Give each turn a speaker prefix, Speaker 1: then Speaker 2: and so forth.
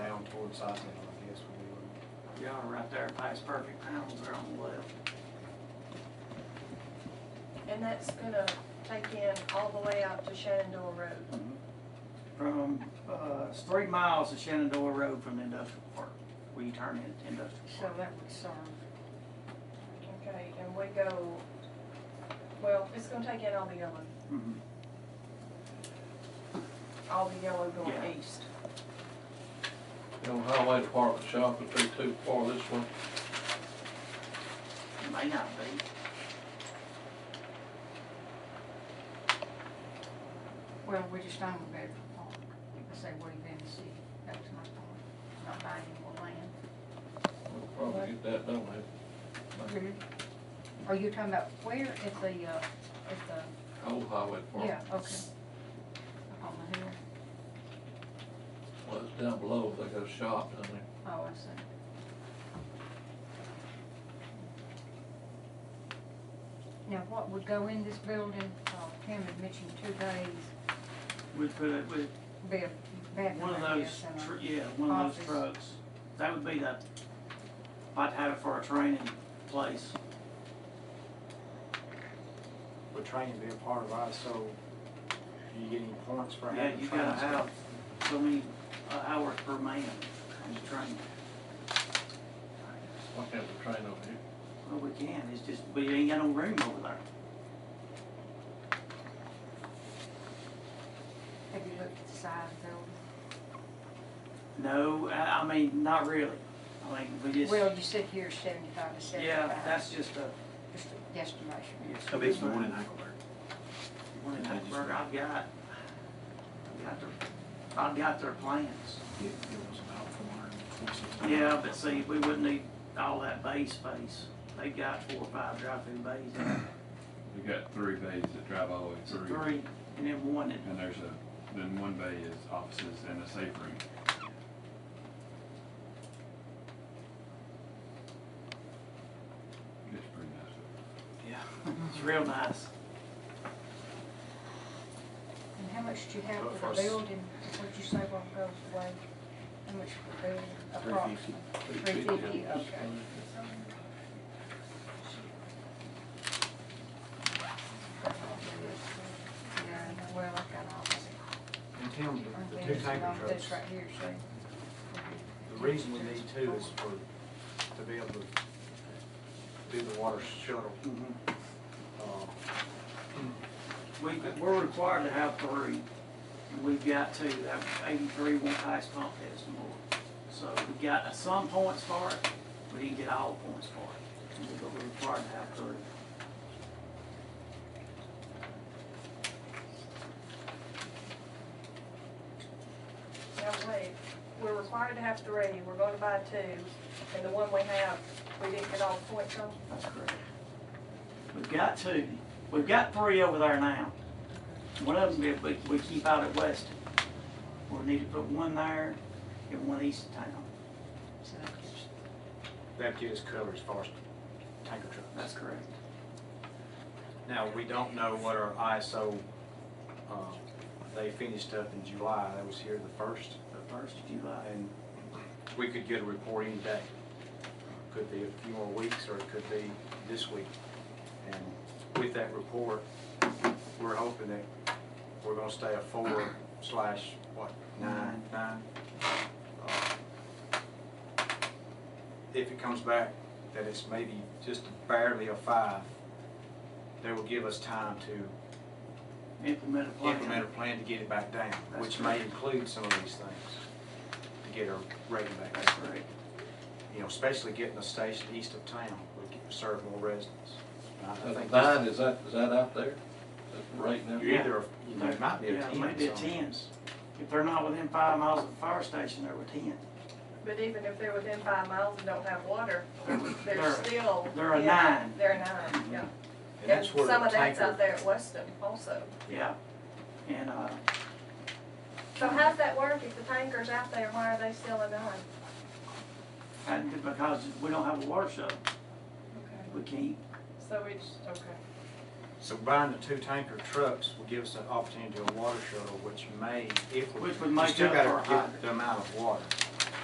Speaker 1: what side they on, I guess, when we were.
Speaker 2: Y'all are right there past Perfect Pounds, they're on the left.
Speaker 3: And that's gonna take in all the way out to Shenandoah Road.
Speaker 2: Mm-hmm. From, uh, it's three miles of Shenandoah Road from the industrial park, where you turn into industrial
Speaker 4: So
Speaker 2: park.
Speaker 4: that uh, would serve,
Speaker 3: Okay, and we go, well, it's gonna take in all the yellow,
Speaker 2: Mhm.
Speaker 3: all the yellow going
Speaker 2: Yeah.
Speaker 3: east.
Speaker 5: You know, highway department shop would be too far this way.
Speaker 2: It May not be.
Speaker 4: well, we just own Bedford Park. I say we've been the city, that was my point, not buying any more land.
Speaker 5: We'll probably get that done there.
Speaker 2: Mm-hmm.
Speaker 4: Are you talking about where at the, uh, at
Speaker 5: Old highway
Speaker 4: the, yeah,
Speaker 5: department,
Speaker 4: okay. Up on the hill,
Speaker 5: well, it's down below, they got a shop down there.
Speaker 4: oh, I see. Now, what would go in this building, uh, Tim had mentioned two days,
Speaker 2: We put it with
Speaker 4: be a bed.
Speaker 2: one of those,
Speaker 4: uh,
Speaker 2: tr- yeah, one of those
Speaker 4: Office.
Speaker 2: trucks. That would be the, I'd have it for a training place.
Speaker 1: Would training be a part of ours, so you get any points for
Speaker 2: Yeah,
Speaker 1: having
Speaker 2: you
Speaker 1: trains?
Speaker 2: gotta have so many uh, hours per man on the train.
Speaker 5: Why can't we train over here?
Speaker 2: Well, we can, it's just, we ain't got no room over there.
Speaker 4: Have you looked at the size of the building?
Speaker 2: No, I, I mean, not really. I mean, we just,
Speaker 4: Well, you said here seventy-five to seventy-five.
Speaker 2: yeah, that's just a,
Speaker 4: Just a guesstimation.
Speaker 2: yes.
Speaker 1: How big's the one in Hackleburg?
Speaker 2: One in Hackleburg, I've got, I've got their, I've got their plans.
Speaker 1: It it was about four hundred and twenty-six.
Speaker 2: Yeah, but see, we wouldn't need all that bay space. They got four or five drive-through bays,
Speaker 6: We got three bays that drive all the way
Speaker 2: so
Speaker 6: through,
Speaker 2: three, and then one that,
Speaker 6: and there's a, then one bay is offices and a safe room. It's pretty nice.
Speaker 1: Yeah.
Speaker 2: it's real nice.
Speaker 4: And how much do you have
Speaker 1: But
Speaker 4: for
Speaker 1: for
Speaker 4: the
Speaker 1: us-
Speaker 4: building, what'd you say what goes away? How much for the building approximately?
Speaker 5: 350,
Speaker 4: Three fifty,
Speaker 5: yeah.
Speaker 4: okay. Yeah, well, I've got all this.
Speaker 1: And Tim, the- the two
Speaker 4: There's a
Speaker 1: tanker
Speaker 4: lot of
Speaker 1: trucks,
Speaker 4: This right here, see?
Speaker 1: the reason we need two is for, to be able to do the water shuttle. Uh,
Speaker 2: We, we're required to have three, and we've got two, that eighty-three won't pass pump test no more. So we got some points for it, we didn't get all points for it, but we're required to have three.
Speaker 3: Now, wait, we're required to have three, we're gonna buy two, and the one we have, we didn't get all the points on.
Speaker 2: That's correct. We've got two, we've got three over there now. One of them, we, we keep out at Weston. We need to put one there and one east of town.
Speaker 4: So that gives-
Speaker 1: That gives cover as far as tanker trucks.
Speaker 2: That's correct.
Speaker 1: Now, we don't know what our ISO, um, they finished up in July, that was here the first,
Speaker 2: The first uh, of July.
Speaker 1: and we could get a report any day. Could be a few more weeks, or it could be this week. And with that report, we're hoping that we're gonna stay a four slash, what, nine, nine? Uh, If it comes back that it's maybe just barely a five, that will give us time to
Speaker 2: Implement a plan.
Speaker 1: implement a plan to get it back down,
Speaker 2: That's
Speaker 1: which may
Speaker 2: correct.
Speaker 1: include some of these things to get our rating back.
Speaker 2: That's correct.
Speaker 1: You know, especially getting a station east of town would get- serve more residents. And I- I
Speaker 5: That
Speaker 1: think
Speaker 5: nine,
Speaker 1: this-
Speaker 5: is that, is that out there? That's right now?
Speaker 1: You're either, you know, it might be a
Speaker 2: Yeah,
Speaker 1: ten.
Speaker 2: Maybe a
Speaker 1: somewhere.
Speaker 2: ten. If they're not within five miles of the fire station, they're within.
Speaker 3: But even if they're within five miles and don't have water,
Speaker 2: They're-
Speaker 3: they're still.
Speaker 2: they're a
Speaker 3: yeah,
Speaker 2: nine.
Speaker 3: They're a nine, yeah.
Speaker 1: And that's
Speaker 3: Yeah,
Speaker 1: where
Speaker 3: Some
Speaker 1: the
Speaker 3: of that's
Speaker 1: tanker-
Speaker 3: out there at Weston also.
Speaker 2: Yeah. And, uh,
Speaker 3: So how's that work if the tanker's out there, why are they still a nine?
Speaker 2: and because we don't have a water shut,
Speaker 3: Okay.
Speaker 2: we can't.
Speaker 3: So we just, okay.
Speaker 1: So buying the two tanker trucks will give us an opportunity to a water shuttle, which may, if we.
Speaker 2: Which would
Speaker 1: you
Speaker 2: make
Speaker 1: still
Speaker 2: up
Speaker 1: gotta
Speaker 2: for a
Speaker 1: get
Speaker 2: hydrant.
Speaker 1: The amount of water.